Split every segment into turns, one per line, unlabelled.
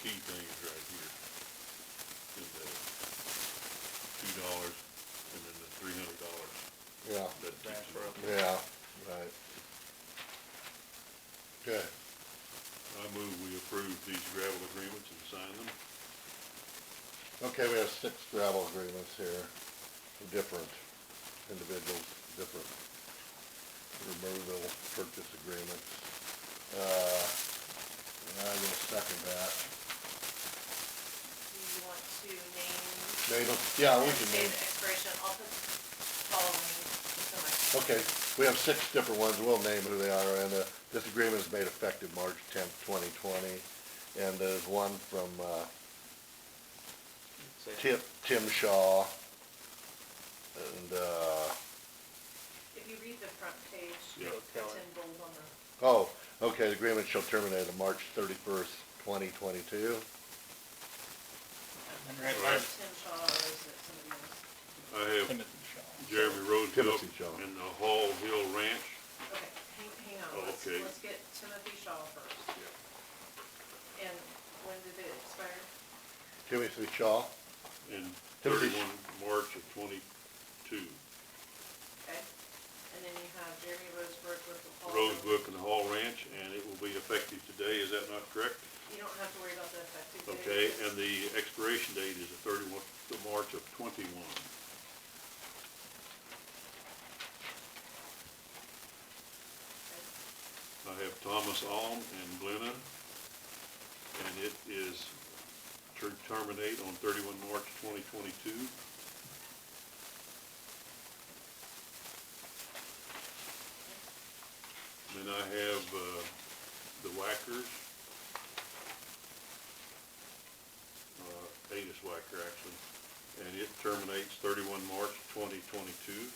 key things right here. In the two dollars and then the three hundred dollars.
Yeah,
That
Back
takes it up.
yeah, right. Okay,
I move we approve these gravel agreements and sign them.
okay, we have six gravel agreements here, for different individuals, different removal purchase agreements. Uh, and I will second that.
Do you want to name?
Name 'em. yeah, we can
Date
name,
of expiration, I'll put following, so much.
okay, we have six different ones, we'll name who they are, and, uh, this agreement is made effective March tenth, twenty twenty. And there's one from, uh,
Say-
Tim, Tim Shaw, and, uh,
If you read the front page,
Yeah.
it's in bold on the,
oh, okay, the agreement shall terminate on March thirty-first, twenty twenty-two.
And right by
Tim Shaw, or is it somebody else?
I have
Timothy Shaw.
Jeremy Roosevelt
Timothy Shaw.
and the Hall Hill Ranch.
Okay, hang, hang on,
Oh,
let's,
okay.
let's get Timothy Shaw first. And when did it expire?
Timothy Shaw,
And
Timothy Sh-
thirty-one March of twenty-two.
Okay, and then you have Jeremy Rosebrook with the Paul.
Rosebrook and the Hall Ranch, and it will be effective today, is that not correct?
You don't have to worry about the effective date.
Okay, and the expiration date is the thirty-one, of March of twenty-one.
Okay.
I have Thomas Alm and Glenna, and it is to terminate on thirty-one March twenty twenty-two. Then I have, uh, the Whackers. Uh, Adis Whacker, actually, and it terminates thirty-one March twenty twenty-two.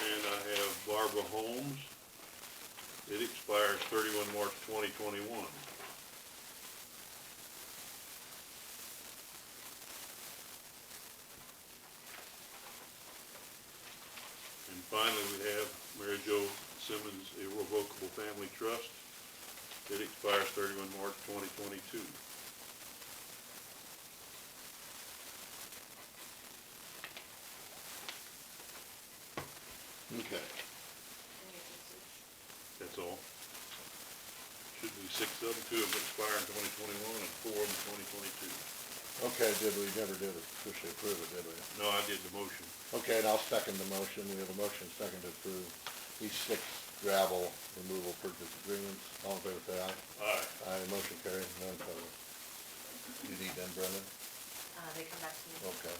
And I have Barbara Holmes. It expires thirty-one March twenty twenty-one. And finally, we have Mary Jo Simmons Irrevocable Family Trust. It expires thirty-one March twenty twenty-two.
okay,
And you can see-
That's all. Should be six of them, two of them expire in twenty twenty-one and four of them twenty twenty-two.
okay, did we, never did officially approve it, did we?
No, I did the motion.
Okay, and I'll second the motion, we have a motion second to approve these six gravel removal purchase agreements, all in favor, say aye.
Aye.
Aye, motion carried, none opposed. You need them, Brendan?
Uh, they come back to me.
Okay.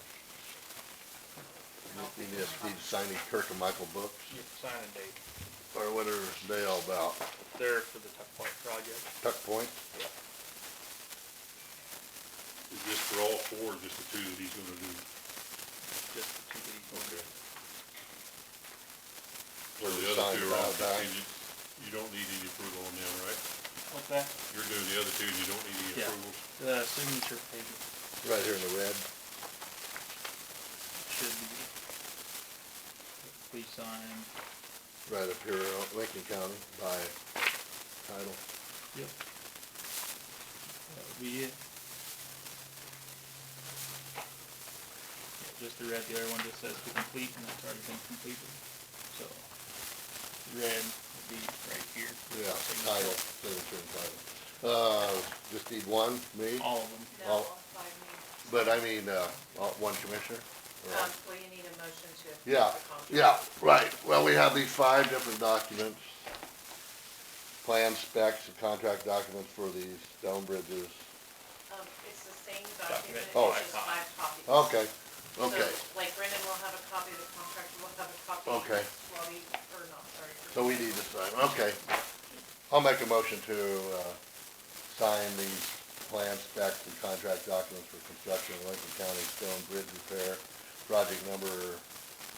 You need to need to sign these Kirk and Michael books,
Yeah, Signing date.
or what are they all about?
They're for the Tuck Point project.
Tuck Point?
Is this for all four, or just the two that he's gonna do?
Just the two that he's going to-
Or the other
Sign
two are all
about that.
contingent? You don't need any approval on them, right?
What's that?
You're doing the other two, and you don't need any
Yeah.
approvals?
The signature page
Right here in the red.
should be. Please sign.
Right up here, uh, Lincoln County by title.
Yep. That'll be it. Yeah, just the red, the other one just says to complete, and that's already been completed, so. the Red would be right here.
Yeah, title,
Signature.
signature and title. Uh, just need one, me,
All of them.
No,
All-
all five need.
but I mean, uh, uh, one commissioner? or all?
Um, well, you need a motion to approve the
Yeah, yeah,
contract.
right. Well, we have these five different documents. Plan specs and contract documents for these stone bridges.
Um, it's the same document, it's
Oh.
just five copies.
Okay, okay.
So, like Brendan will have a copy of the contract, we'll have a copy.
Okay.
Robbie, or not, sorry.
So we need to sign, okay. I'll make a motion to, uh, sign these plan specs and contract documents for construction of Lincoln County Stone Bridge Repair, project number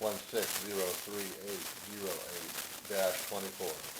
one six zero three eight zero eight dash twenty-four.